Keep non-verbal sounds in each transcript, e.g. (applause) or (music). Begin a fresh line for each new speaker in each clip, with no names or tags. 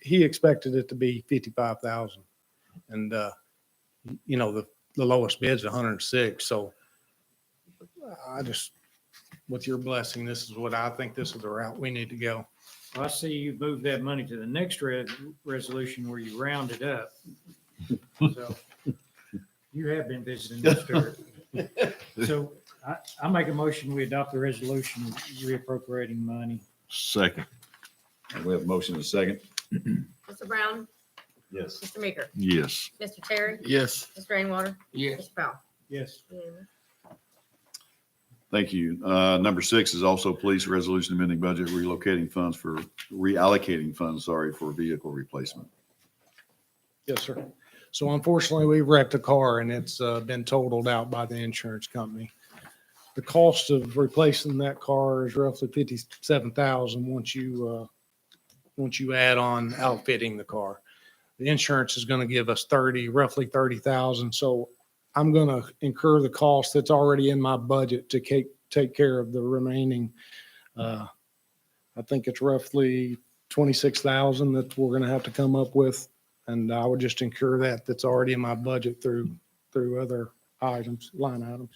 he expected it to be fifty-five thousand. And, uh, you know, the, the lowest bid's hundred and six, so I just, with your blessing, this is what I think this is the route we need to go.
I see you moved that money to the next re- resolution where you round it up. So You have been visiting this dirt. So I, I make a motion, we adopt the resolution reappropriating money.
Second.
We have a motion and a second.
Mr. Brown,
Yes.
Mr. Meeker,
Yes.
Mr. Terry,
Yes.
Mr. Rainwater,
Yes.
Mr. Powell.
Yes,
Thank you. Uh, Number six is also police resolution amending budget relocating funds for, reallocating funds, sorry, for vehicle replacement.
Yes, sir. So unfortunately, we wrecked a car and it's uh, been totaled out by the insurance company. The cost of replacing that car is roughly fifty-seven thousand once you, uh, once you add on outfitting the car. The insurance is going to give us thirty, roughly thirty thousand. So I'm going to incur the cost that's already in my budget to take, take care of the remaining. uh, I think it's roughly twenty-six thousand that we're going to have to come up with and I would just incur that, that's already in my budget through, through other items, line items.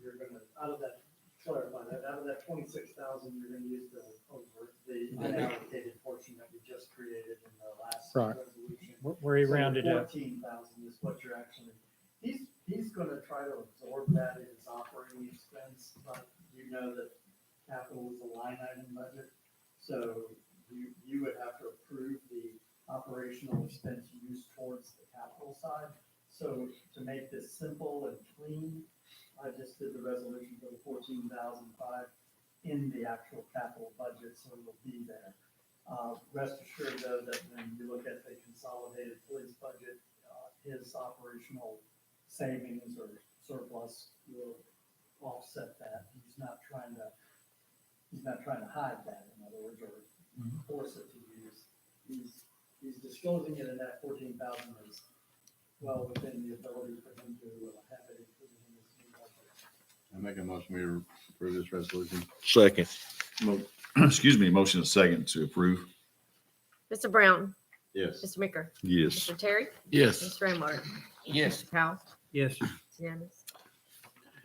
you're gonna, out of that, clarify that, out of that twenty-six thousand, you're gonna use the, over, the unallocated portion that we just created in the last
Right.
resolution.
where- where he rounded up.
Fourteen thousand is what you're actually, he's, he's gonna try to absorb that in his operating expense, but you know that capital is a line item budget, so you, you would have to approve the operational expense used towards the capital side. So to make this simple and clean, I just did the resolution for the fourteen thousand five in the actual capital budget, so it'll be there. Uh, Rest assured though, that when you look at the consolidated police budget, uh, his operational savings or surplus will offset that. He's not trying to, he's not trying to hide that, in other words, or force it to use. He's, he's disclosing it in that fourteen thousand is well within the ability for him to uh, have it included in his new budget.
I make a motion we approve this resolution.
Second.
Mo- (clears throat) Excuse me, motion and second to approve.
Mr. Brown,
Yes.
Mr. Meeker,
Yes.
Mr. Terry,
Yes.
Mr. Rainwater,
Yes.
Mr. Powell.
Yes,
It's unanimous.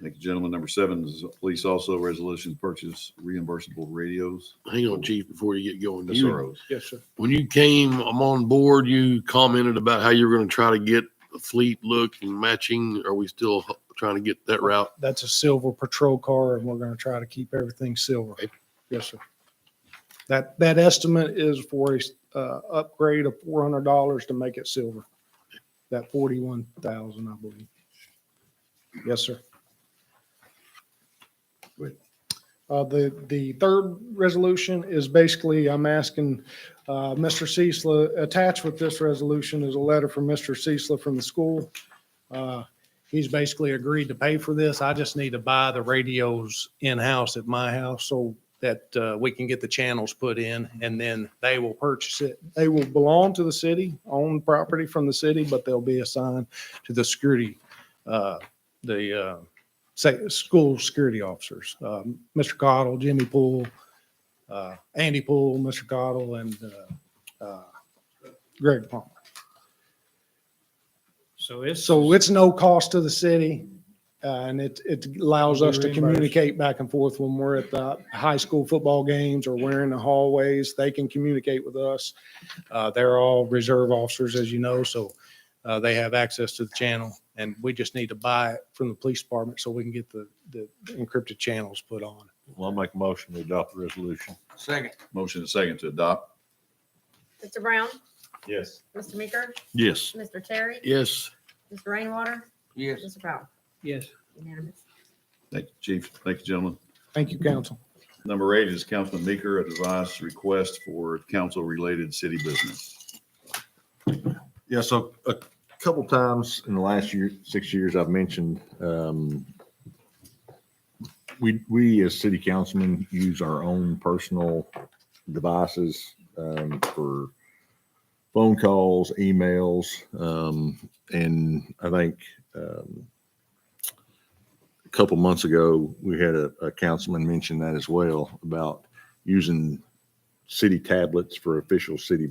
Thank you, gentlemen. Number seven is police also resolution purchase reimbursable radios.
Hang on, Chief, before you get going. You-
SROs.
Yes, sir.
When you came I'm on board, you commented about how you were going to try to get the fleet look and matching. Are we still trying to get that route?
That's a silver patrol car and we're gonna try to keep everything silver.
Okay.
Yes, sir. That, that estimate is for a, uh, upgrade of four hundred dollars to make it silver. That forty-one thousand, I believe. Yes, sir.
Good.
Uh, the, the third resolution is basically, I'm asking, uh, Mr. Cecil, attached with this resolution is a letter from Mr. Cecil from the school. Uh, he's basically agreed to pay for this. I just need to buy the radios in-house at my house so that uh, we can get the channels put in and then they will purchase it. They will belong to the city, own property from the city, but they'll be assigned to the security, uh, the uh, say, school security officers. Um, Mr. Cottle, Jimmy Poole, uh, Andy Poole, Mr. Cottle, and uh, uh, Greg Palmer.
so it's.
So it's no cost to the city, uh, and it, it allows us to
Be reimbursed.
communicate back and forth when we're at the high school football games or we're in the hallways. They can communicate with us. Uh, They're all reserve officers, as you know, so uh, they have access to the channel, and we just need to buy it from the police department so we can get the, the encrypted channels put on.
I'll make a motion to adopt the resolution.
Second.
Motion and second to adopt.
Mr. Brown,
Yes.
Mr. Meeker,
Yes.
Mr. Terry,
Yes.
Mr. Rainwater,
Yes.
Mr. Powell.
Yes.
Unanimous.
Thank you, Chief. Thank you, gentlemen.
Thank you, council.
Number eight is Councilman Meeker, a devised request for council-related city business.
Yeah, so a couple times in the last year, six years, I've mentioned, um, we, we as city councilmen use our own personal devices, um, for phone calls, emails, um, and I think, um, a couple months ago, we had a, a councilman mention that as well about using city tablets for official city